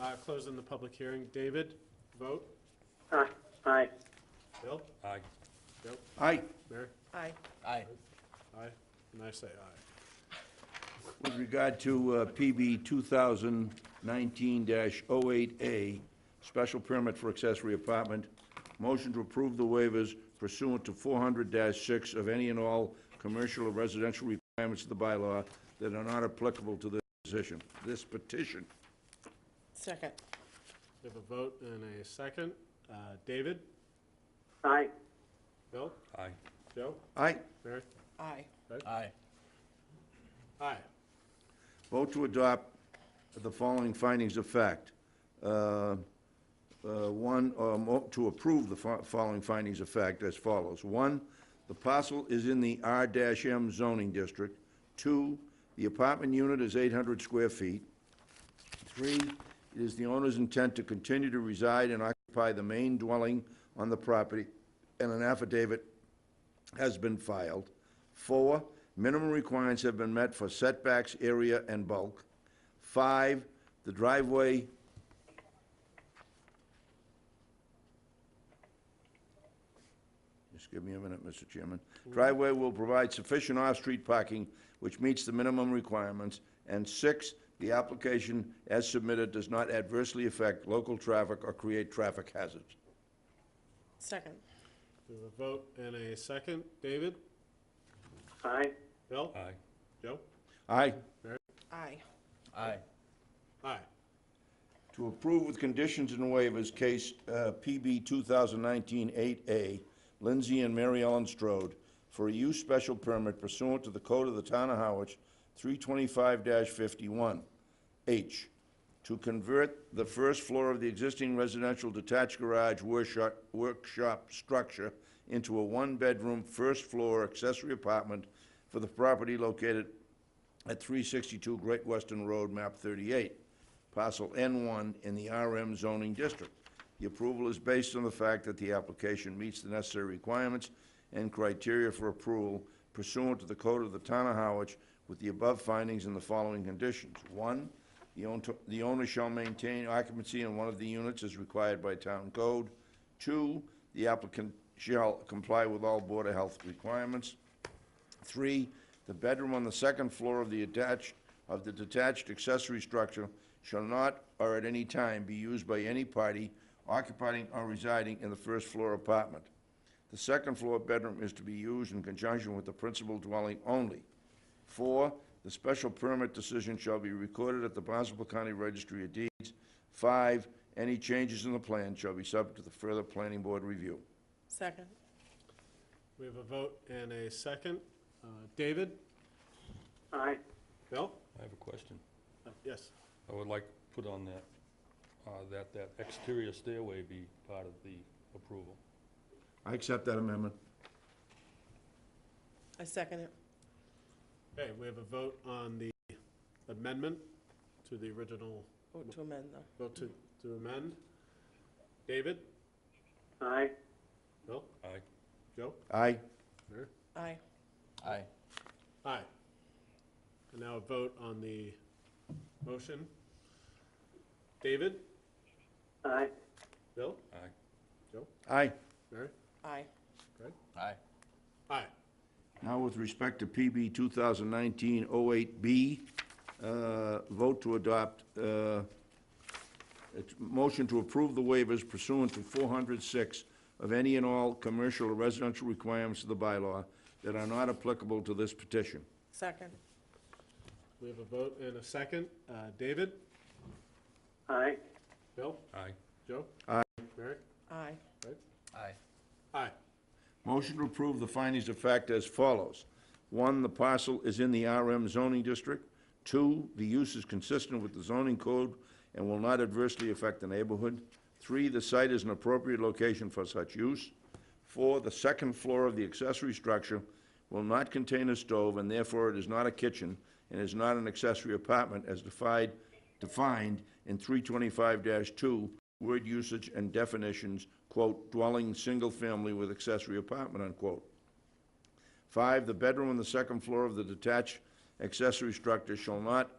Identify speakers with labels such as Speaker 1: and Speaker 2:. Speaker 1: Uh, Closing the public hearing. David, vote.
Speaker 2: Aye. Aye.
Speaker 1: Bill?
Speaker 3: Aye.
Speaker 1: Joe?
Speaker 4: Aye,
Speaker 1: Mary?
Speaker 5: Aye.
Speaker 3: Aye.
Speaker 1: Aye. And I say aye.
Speaker 4: with regard to uh, PB 2019-08A, special permit for accessory apartment, motion to approve the waivers pursuant to 400-6 of any and all commercial or residential requirements of the bylaw that are not applicable to this position, this petition.
Speaker 5: Second.
Speaker 1: We have a vote and a second. Uh, David?
Speaker 2: Aye.
Speaker 1: Bill?
Speaker 3: Aye.
Speaker 1: Joe?
Speaker 4: Aye,
Speaker 1: Mary?
Speaker 5: Aye.
Speaker 3: Aye.
Speaker 1: Aye.
Speaker 4: vote to adopt the following findings of fact. Uh, uh, One, uh, mo- to approve the fo- following findings of fact as follows. One, the parcel is in the R-M zoning district. Two, the apartment unit is 800 square feet. Three, it is the owner's intent to continue to reside and occupy the main dwelling on the property, and an affidavit has been filed. Four, minimum requirements have been met for setbacks, area, and bulk. Five, the driveway Just give me a minute, Mr. Chairman. Driveway will provide sufficient off-street parking, which meets the minimum requirements. And six, the application as submitted does not adversely affect local traffic or create traffic hazards.
Speaker 5: Second.
Speaker 1: We have a vote and a second. David?
Speaker 2: Aye.
Speaker 1: Bill?
Speaker 3: Aye.
Speaker 1: Joe?
Speaker 4: Aye.
Speaker 5: Aye.
Speaker 3: Aye.
Speaker 1: Aye.
Speaker 4: To approve with conditions and waivers, case uh, PB 2019-8A, Lindsay and Mary Ellen Strode, for a use special permit pursuant to the Code of the Town of Howard, 325-51. H, to convert the first floor of the existing residential detached garage workshop, workshop structure into a one-bedroom, first-floor accessory apartment for the property located at 362 Great Western Road, map 38, parcel N1 in the RM zoning district. The approval is based on the fact that the application meets the necessary requirements and criteria for approval pursuant to the code of the town of Howard with the above findings and the following conditions. One, the own- the owner shall maintain occupancy in one of the units as required by town code. Two, the applicant shall comply with all Board of Health requirements. Three, the bedroom on the second floor of the attached, of the detached accessory structure shall not or at any time be used by any party occupying or residing in the first floor apartment. The second floor bedroom is to be used in conjunction with the principal dwelling only. Four, the special permit decision shall be recorded at the Barnstable County Registry of Deeds. Five, any changes in the plan shall be subject to the further planning board review.
Speaker 5: Second.
Speaker 1: We have a vote and a second. Uh, David?
Speaker 2: Aye.
Speaker 1: Bill?
Speaker 3: I have a question.
Speaker 1: Uh, Yes.
Speaker 3: I would like to put on that, uh, that, that exterior stairway be part of the approval.
Speaker 4: I accept that amendment.
Speaker 5: I second it.
Speaker 1: Okay, we have a vote on the amendment to the original,
Speaker 5: Vote to amend though.
Speaker 1: vote to to amend. David?
Speaker 2: Aye.
Speaker 1: Bill?
Speaker 3: Aye.
Speaker 1: Joe?
Speaker 4: Aye.
Speaker 1: Mary?
Speaker 5: Aye.
Speaker 3: Aye.
Speaker 1: Aye. And now a vote on the motion. David?
Speaker 2: Aye.
Speaker 1: Bill?
Speaker 3: Aye.
Speaker 4: Aye.
Speaker 1: Mary?
Speaker 5: Aye.
Speaker 1: Greg?
Speaker 3: Aye.
Speaker 1: Aye.
Speaker 4: Now, with respect to PB 2019-08B, uh, vote to adopt, uh, it's motion to approve the waivers pursuant to 406 of any and all commercial or residential requirements of the bylaw that are not applicable to this petition.
Speaker 5: Second.
Speaker 1: We have a vote and a second. Uh, David?
Speaker 2: Aye.
Speaker 1: Bill?
Speaker 3: Aye.
Speaker 1: Joe?
Speaker 4: Aye.
Speaker 1: Mary?
Speaker 5: Aye.
Speaker 1: Greg?
Speaker 3: Aye.
Speaker 1: Aye.
Speaker 4: Motion to approve the findings of fact as follows. One, the parcel is in the RM zoning district. Two, the use is consistent with the zoning code and will not adversely affect the neighborhood. Three, the site is an appropriate location for such use. Four, the second floor of the accessory structure will not contain a stove, and therefore it is not a kitchen and is not an accessory apartment as defined, defined in 325-2, word usage and definitions, quote, dwelling, single-family with accessory apartment, unquote. Five, the bedroom on the second floor of the detached accessory structure shall not